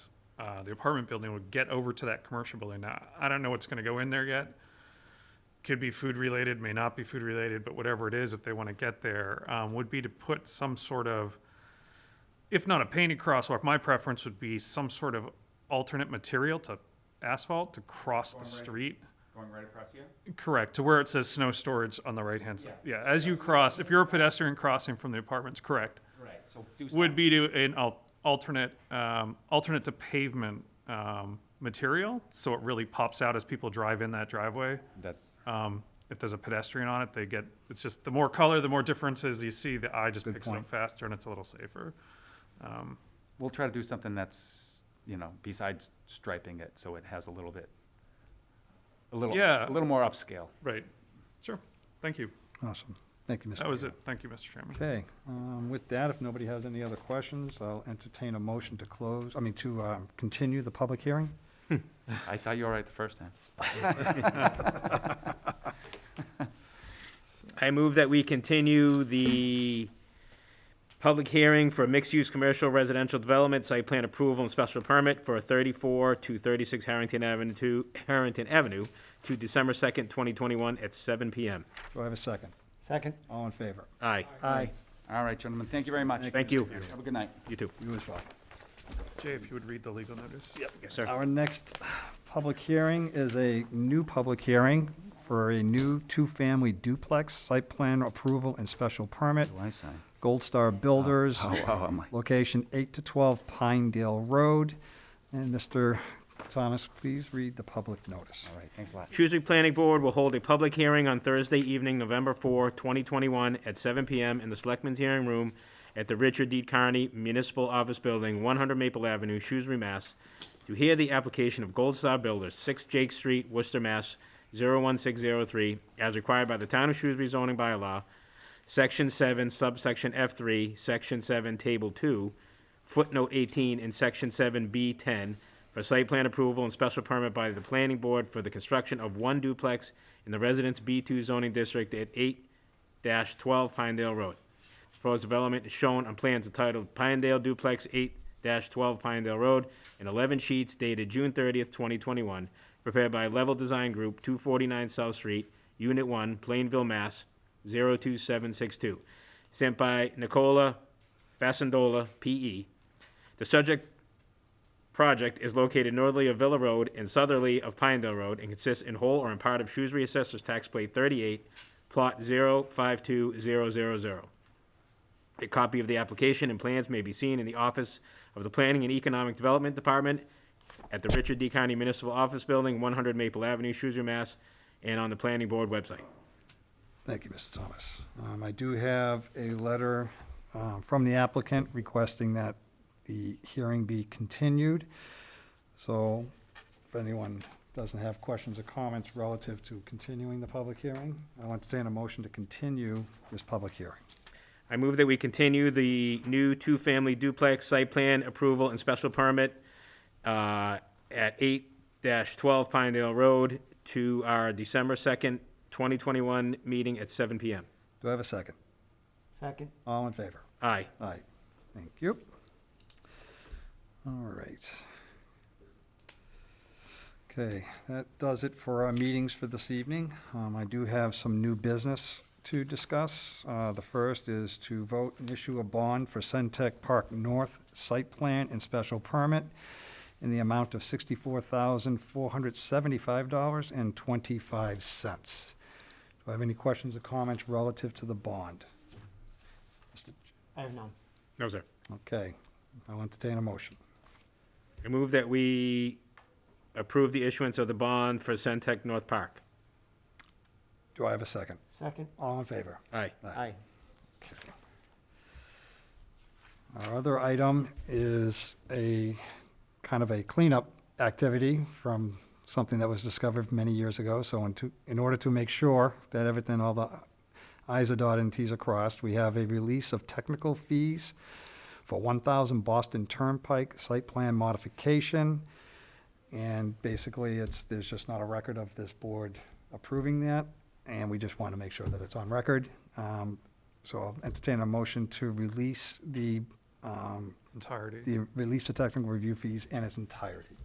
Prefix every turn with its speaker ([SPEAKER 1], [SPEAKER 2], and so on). [SPEAKER 1] uh, the apartment building would get over to that commercial building. Now, I don't know what's gonna go in there yet. Could be food related, may not be food related, but whatever it is, if they wanna get there, um, would be to put some sort of, if not a painted crosswalk, my preference would be some sort of alternate material to asphalt to cross the
[SPEAKER 2] Going right.
[SPEAKER 1] street.
[SPEAKER 2] Going right across here?
[SPEAKER 1] Correct, to where it says snow storage on the right-hand side. Yeah, as you cross, if you're a pedestrian crossing from the apartments, correct,
[SPEAKER 2] Right, so do something.
[SPEAKER 1] would be to an al- alternate, um, alternate to pavement, um, material, so it really pops out as people drive in that driveway.
[SPEAKER 3] That,
[SPEAKER 1] Um, if there's a pedestrian on it, they get, it's just, the more color, the more differences you see, the eye just
[SPEAKER 3] Good
[SPEAKER 1] picks it up
[SPEAKER 3] point.
[SPEAKER 1] faster and it's a little safer. Um,
[SPEAKER 3] we'll try to do something that's, you know, besides striping it, so it has a little bit, a little,
[SPEAKER 1] Yeah.
[SPEAKER 3] a little more upscale.
[SPEAKER 1] right, sure, thank you,
[SPEAKER 4] Awesome. Thank you, Mr.
[SPEAKER 1] that was it,
[SPEAKER 4] Mayor.
[SPEAKER 1] thank you, Mr. Chairman.
[SPEAKER 4] Okay, um, with that, if nobody has any other questions, I'll entertain a motion to close, I mean, to, um, continue the public hearing.
[SPEAKER 3] I thought you were right the first time.
[SPEAKER 5] I move that we continue the public hearing for mixed-use commercial residential development site plan approval and special permit for thirty-four to thirty-six Harrington Avenue to Harrington Avenue to December second, twenty twenty-one at seven PM.
[SPEAKER 4] Do I have a second?
[SPEAKER 6] Second.
[SPEAKER 4] All in favor?
[SPEAKER 5] Aye,
[SPEAKER 6] Aye.
[SPEAKER 3] All right, gentlemen, thank you very much.
[SPEAKER 5] Thank you.
[SPEAKER 3] Have a good night.
[SPEAKER 5] you too.
[SPEAKER 4] You as well.
[SPEAKER 1] Jay, if you would read the legal notice.
[SPEAKER 5] Yes, sir.
[SPEAKER 4] Our next public hearing is a new public hearing for a new two-family duplex site plan approval and special permit,
[SPEAKER 3] Do I sign?
[SPEAKER 4] Gold Star Builders.
[SPEAKER 3] Oh, oh, am I?
[SPEAKER 4] Location 8 to 12 Pinedale Road. And Mr. Thomas, please read the public notice.
[SPEAKER 3] All right, thanks a lot.
[SPEAKER 5] Shrewsbury Planning Board will hold a public hearing on Thursday evening, November 4, 2021, at 7 PM in the Selectmen's Hearing Room at the Richard D. Carney Municipal Office Building, 100 Maple Avenue, Shrewsbury, Mass., to hear the application of Gold Star Builders, 6 Jake Street, Worcester, Mass., 01603, as required by the Town of Shrewsbury zoning bylaw, Section 7, subsection F3, Section 7, Table 2, footnote 18 in Section 7B10 for site plan approval and special permit by the planning board for the construction of one duplex in the Residence B2 zoning district at 8-12 Pinedale Road. Proposed development is shown on plans entitled Pinedale Duplex 8-12 Pinedale Road and 11 sheets dated June 30th, 2021, prepared by Level Design Group, 249 South Street, Unit 1, Plainville, Mass. 02762, sent by Nicola Fasendola, P.E. The subject project is located northerly of Villa Road and southerly of Pinedale Road and consists in whole or in part of Shrewsbury Assessor's Tax Plate 38, Plot 052000. A copy of the application and plans may be seen in the office of the Planning and Economic Development Department at the Richard D. County Municipal Office Building, 100 Maple Avenue, Shrewsbury, Mass., and on the Planning Board website.
[SPEAKER 4] Thank you, Mr. Thomas. Um, I do have a letter um, from the applicant requesting that the hearing be continued. So if anyone doesn't have questions or comments relative to continuing the public hearing, I'll entertain a motion to continue this public hearing.
[SPEAKER 5] I move that we continue the new two-family duplex site plan approval and special permit uh, at eight twelve Pinedale Road to our December second, twenty twenty-one meeting at seven PM.
[SPEAKER 4] Do I have a second?
[SPEAKER 6] Second.
[SPEAKER 4] All in favor?
[SPEAKER 5] Aye.
[SPEAKER 4] Aye. Thank you. All right. Okay, that does it for our meetings for this evening. Um, I do have some new business to discuss. Uh, the first is to vote and issue a bond for Centec Park North site plan and special permit in the amount of sixty-four thousand, four hundred seventy-five dollars and twenty-five cents. Do I have any questions or comments relative to the bond?
[SPEAKER 6] I have none.
[SPEAKER 5] No, sir.
[SPEAKER 4] Okay, I'll entertain a motion.
[SPEAKER 5] I move that we approve the issuance of the bond for Centec North Park.
[SPEAKER 4] Do I have a second?
[SPEAKER 6] Second.
[SPEAKER 4] All in favor?
[SPEAKER 5] Aye.
[SPEAKER 6] Aye.
[SPEAKER 4] Our other item is a, kind of a cleanup activity from something that was discovered many years ago. So in to, in order to make sure that everything, all the i's are dotted and t's are crossed, we have a release of technical fees for one thousand Boston Turnpike site plan modification. And basically, it's, there's just not a record of this board approving that, and we just want to make sure that it's on record. Um, So I'll entertain a motion to release the um,
[SPEAKER 1] entirety.
[SPEAKER 4] the release of technical review fees in its entirety.